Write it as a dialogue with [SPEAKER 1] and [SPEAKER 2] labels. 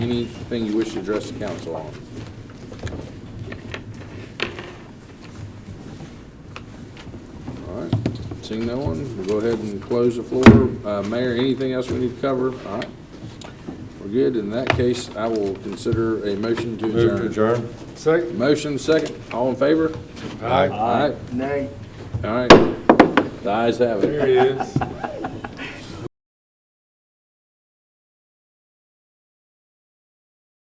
[SPEAKER 1] Anything you wish to address the council on? All right, seeing no one, we'll go ahead and close the floor. Uh, Mayor, anything else we need to cover? All right, we're good. In that case, I will consider a motion to
[SPEAKER 2] Move to
[SPEAKER 1] adjourn.
[SPEAKER 2] adjourn.
[SPEAKER 3] Second.
[SPEAKER 1] Motion second, all in favor?
[SPEAKER 3] Aye.
[SPEAKER 1] All right,
[SPEAKER 3] Nay.
[SPEAKER 1] all right. The ayes have it.
[SPEAKER 3] There it is.